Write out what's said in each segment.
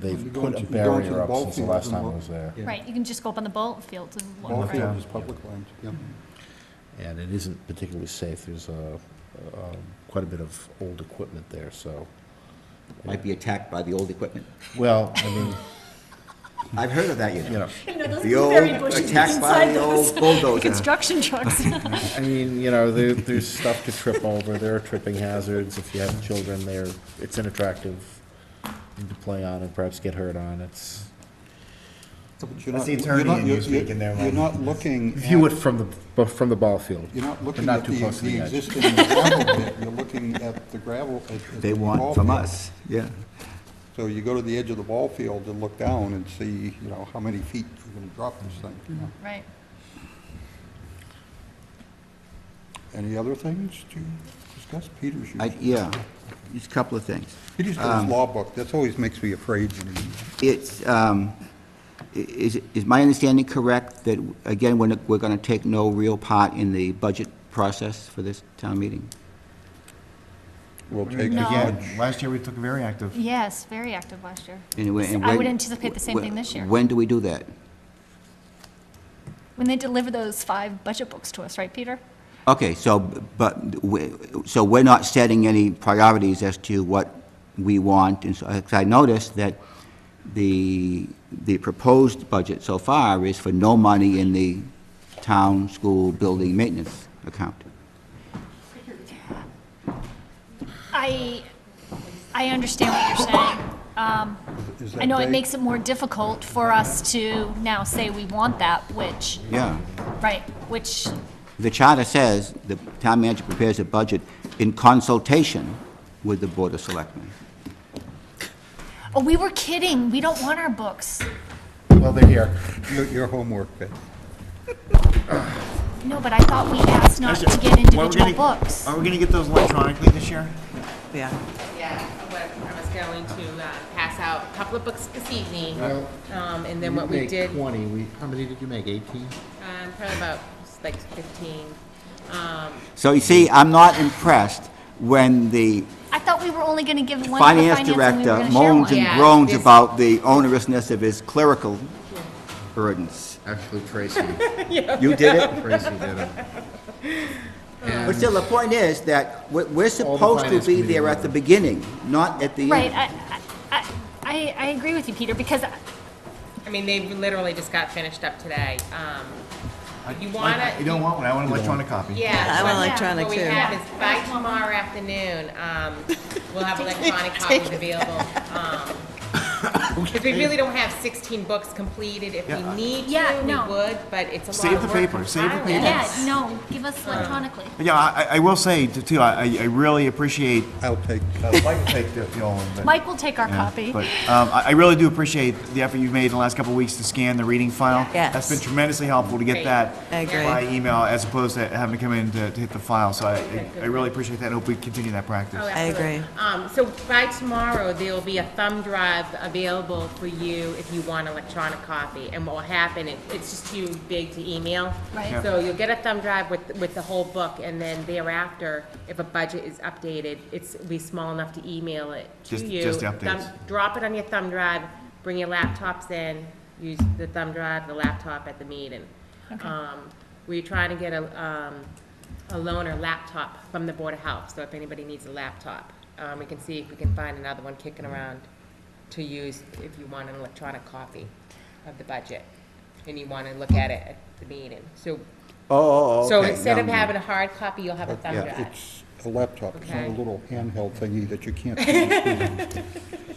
They've You go put into- a you go into barrier the up ball since the fields last and time I look. was there. Yeah. Right, you can just go up on the ball fields and walk Ball Walk around. field down. is public land, yeah. And it isn't particularly safe. There's uh, uh, quite a bit of old equipment there, so. Might be attacked by the old equipment. Well, I mean, I've heard of that, you you know. know, You know, those The blueberry old- bushes attacked by inside the those old bulldozer. construction trucks. I mean, you know, there, there's stuff to trip over. There are tripping hazards. If you have children there, it's an attractive thing to play on and perhaps get hurt on. It's, But you're That's not- the you're attorney not- in you you're- you're- speaking there, You're Mike. not looking at, view it you're from the, bu- from the ball field. not looking not at too the close to the the edge. existing gravel pit, you're looking at the gravel. at- at They the ball want from field. us, yeah. So you go to the edge of the ball field and look down and see, you know, how many feet you're going to drop this thing. you know. Right. Any other things to discuss? Peter's I, usually, yeah, just a couple of things. Peter's got his law book, that always makes me afraid when he It's, um, i- is, is my understanding correct that, again, we're, not- we're going to take no real part in the budget process for this town meeting? will We're gonna- take as No. much. Again, last year we took very active. Yes, very active last year. And when- and I would when- anticipate the same thing this year. When do we do that? When they deliver those five budget books to us, right, Peter? Okay, so, but, we- so we're not setting any priorities as to what we want, and so, 'cause I noticed that the, the proposed budget so far is for no money in the town school building maintenance account. I, I understand what you're saying. Um, Is I know that it vague? makes it more difficult for us to now say we want that, which, Yeah. right, which, The charter says the town manager prepares a budget in consultation with the Board of Selectmen. oh, we were kidding, we don't want our books. Well, they're here. Your- Your homework, Betty. No, but I thought we asked not to get individual books. Are we gonna get those electronically this year? Yeah. Yeah, what I was going to uh, pass out a couple of books this evening, Well, um, and then what we did, um, Twenty, we, how many did you make, eighteen? probably about like fifteen. Um, So you see, I'm not impressed when the I thought we were only gonna give one to the finance finance and we were director gonna share moans one. and Yeah, groans this- about the onerousness of his clerical burdens. Actually, Tracy, You did it? Tracy did it. But still, the point is that we're, we're the supposed to finance be committee there at the beginning, not at the end. Right, I, I, I, I agree with you, Peter, because I mean, they literally just got finished up today. Um, You Like, wanna? You don't want one, I want an electronic copy. Yeah. I want so electronic What we too. have is by tomorrow afternoon, um, we'll have electronic copies available. Because we really don't have 16 books completed. If we Yeah. need Yeah, to, no. we would, but it's a lot Save of work. the paper, save the compiling. paper. Yeah, no, give us Uh, electronically. But Yeah, I, I- I will say t- too, I, I- I really appreciate, I'll take, I'd like to take the the old one, but. Mike will take our Yeah, copy. But um, I I really do appreciate the effort you've made in the last couple of weeks to scan the reading file. Yes. That's been tremendously helpful to get Great. that I agree. by email as opposed to having to come in to to hit the file. So I, I really appreciate that and hope we continue that practice. Oh, I absolutely. agree. Um, so by tomorrow, there'll be a thumb drive available for you if you want electronic copy. And what will happen, it, it's just too big to email. Right. Yeah. So you'll get a thumb drive with, with the whole book, and then thereafter, if a budget is updated, it's, it'll be small enough to email it to Just- you. just the Thumb- updates. Drop it on your thumb drive, bring your laptops in, use the thumb drive, the laptop at the meeting. Um, we're trying to get a, um, a loan or laptop from the Board of Health, so if anybody needs a laptop, um, we can see if we can find another one kicking around to use if you want an electronic copy of the budget, and you wanna look at it at the meeting, so. Oh, oh, So okay, instead of now- having a hard copy, you'll have a thumb drive. it's a laptop, it's not a Okay. little handheld thingy that you can't.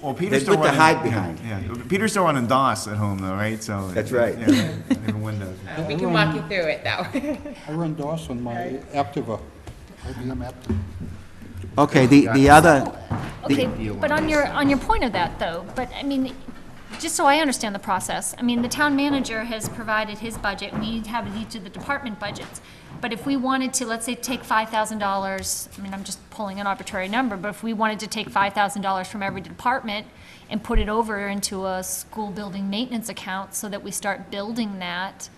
Well, Peter's They still put the running. hide behind. Yeah, Peter's still running DOS at home though, right? So. That's right. Yeah, and Windows. Uh, We can walk you through it, though. I run DOS on my Aptiva, IBM Aptiva. Okay, the, the other, Okay, but on your, on your point of that, though, but, I mean, just so I understand the process, I mean, the town manager has provided his budget, we have each of the department budgets. But if we wanted to, let's say, take five thousand dollars, I mean, I'm just pulling an arbitrary number, but if we wanted to take five thousand dollars from every department and put it over into a school building maintenance account so that we start building that,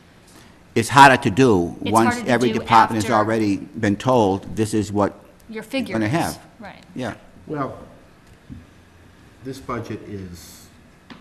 it's harder to do It's once harder to every do department has after- already been told, this is what, your figure gonna is- have. Right. yeah. Well, this budget is